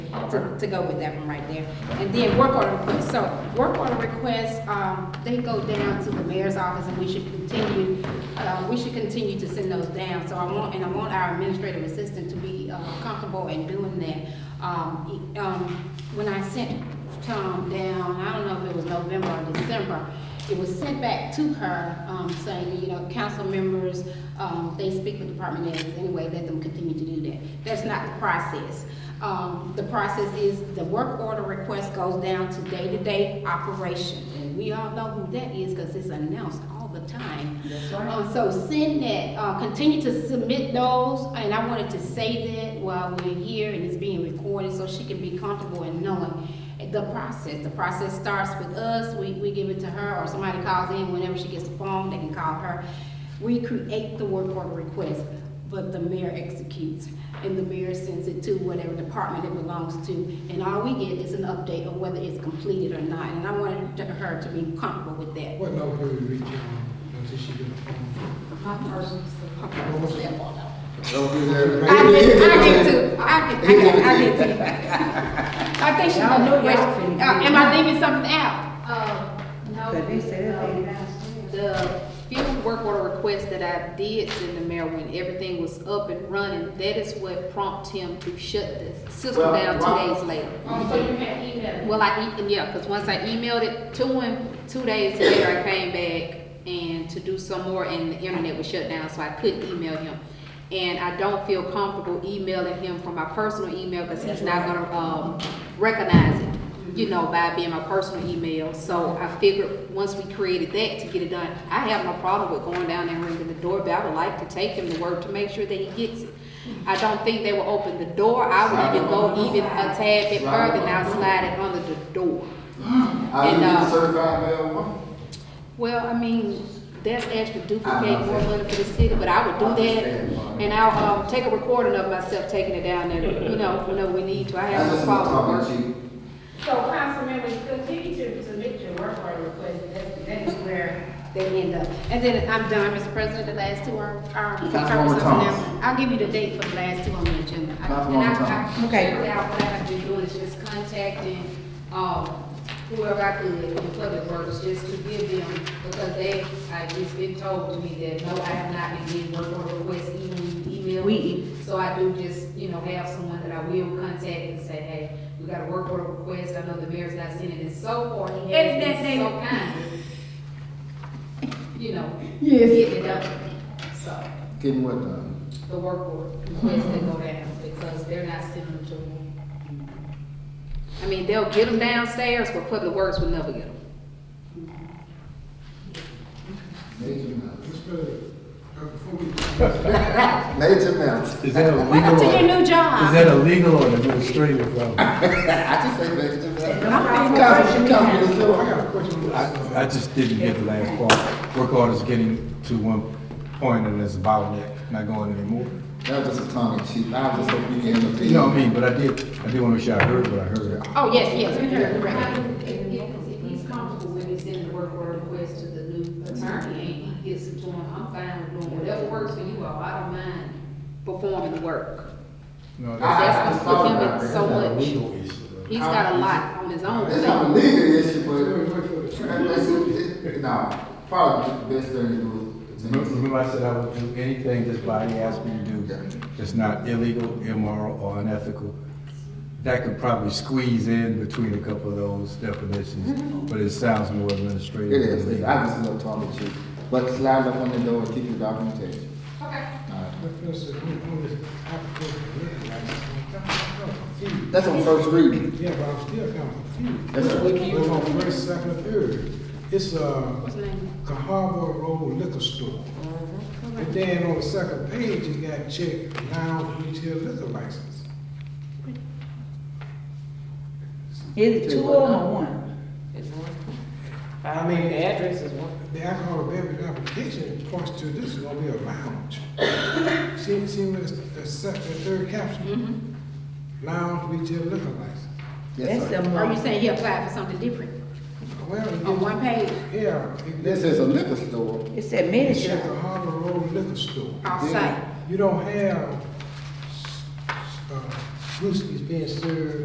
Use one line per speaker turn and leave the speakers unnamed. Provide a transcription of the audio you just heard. to, to go with that one right there. And then work order requests, so work order requests, um, they go down to the mayor's office and we should continue, uh, we should continue to send those down. So I want, and I want our administrative assistant to be, uh, comfortable in doing that. Um, e- um, when I sent Tom down, I don't know if it was November or December, it was sent back to her, um, saying, you know, council members, um, they speak with department heads anyway, let them continue to do that. That's not the process. Um, the process is the work order request goes down to day-to-day operation. And we all know who that is, cause it's announced all the time.
That's right.
Uh, so send that, uh, continue to submit those, and I wanted to say that while we're here and it's being recorded, so she can be comfortable in knowing the process. The process starts with us, we, we give it to her, or somebody calls in, whenever she gets the phone, they can call her. We create the work order request, but the mayor executes, and the mayor sends it to whatever department it belongs to. And all we get is an update of whether it's completed or not, and I wanted to- her to be comfortable with that.
What number would we reach on until she get a phone?
My personal
What was it?
Don't do that.
I get, I get to, I get, I get, I get to. I think she
Y'all
knows
know
the
y'all
question.
finna
Uh,
get
Am
it.
I leaving something out?
Uh, no.
But they said it
um,
ain't
The field work order request that I did send the mayor when everything was up and running, that is what prompted him to shut the system
Well,
down
why-
two days later.
Um, so you had email.
Well, I, e- yeah, because once I emailed it to him, two days later, I came back and to do some more, and the internet was shut down, so I couldn't email him. And I don't feel comfortable emailing him from my personal email, because he's not gonna, um, recognize it, you know, by being my personal email. So I figured, once we created that to get it done, I have no problem with going down there and ringing the doorbell. I would like to take him to work to make sure that he gets it. I don't think they will open the door. I would even go even a tad bit further, and I'll slide it under the door.
I do
And,
get
uh,
a certified mail one.
Well, I mean, that's actually duplicating more money for the city, but I would do that. And I'll, um, take a recording of myself taking it down there, you know, whenever we need to. I
I
have no
just want to
problem
talk
with
to
it.
you.
So council members, continue to submit your work order request, that, that is where they end up. And then I'm done, Mr. President, the last two are, um, are.
Councilwoman Thomas.
I'll give you the date for the last two on the agenda. I- and I-
Councilwoman
I-
Thomas.
Okay.
Right now, what I've been doing is just contacting, um, whoever I could in public works, just to give them, because they, I, it's been told to me that, no, I have not been getting work order requests, even email.
We-
So I do just, you know, have someone that I will contact and say, hey, we got a work order request, I know the mayor's not sending it so far, he
And
has
that
been so
they-
kind. You know,
Yes.
getting it up, so
Getting what uh, done?
the work order requests that go down, because they're not sending them to me. I mean, they'll get them downstairs, but Public Works will never get them.
Major mountain.
Mr. President, uh, before we,
Major mountain.
Is that a
Welcome
legal
to your
or,
new
is
job.
that a legal or administrative problem?
I just say major mountain.
I'm
Council, Council, Ms.
so I
Lewis.
got a question.
I, I just didn't get the last part. Work order's getting to one point and it's a bottleneck, not going anymore.
That was just a tongue in cheek. I was just hoping you didn't
You know what I mean, but I did, I did want to make sure I heard what I heard.
Oh, yes, yes, you heard correct.
If, if he's comfortable with me sending the work order request to the new attorney, and he gets it to him, I'm fine with doing whatever works for you all, I don't mind performing the work.
No, that's-
That's
I- I
for
thought
him,
about
it's
it.
so
That's not
much, he's got a lot on his own.
It's not a legal issue, but
Wait, wait for the
that- that's, it- it- no, probably the best thing to do. is
Remember
to-
remember I said I would do anything this body asked me to do that's not illegal, immoral, or unethical? That could probably squeeze in between a couple of those definitions, but it sounds more
Mm-hmm. It
administrative. than
is,
legal.
I just love tongue in cheek. But slide up on the door and keep your documentation.
Mr. President, I'm on this application, yeah, I just, I'm kind of confused.
That's on first reading.
Yeah, but I'm still kind of confused.
That's right.
It's on first, second, and third. It's, uh,
What's the name?
Cahaba Road Liquor Store. And then on the second page, it got checked, lounge retail liquor license.
Is it two of them or one?
It's one. I mean, the address is one.
The alcohol beverage application points to this is gonna be a lounge. See, see where it's, the second, the third caption?
Mm-hmm.
Lounge retail liquor license.
Yes, sir.
That's them.
Or you saying he applied for something different
Well,
Oh,
on
it-
one page?
yeah. it-
This is a liquor store.
It said
It
mini
said
shop.
Cahaba Road Liquor Store.
Oh.
Off-site.
You don't have, uh, brewskis uh, being served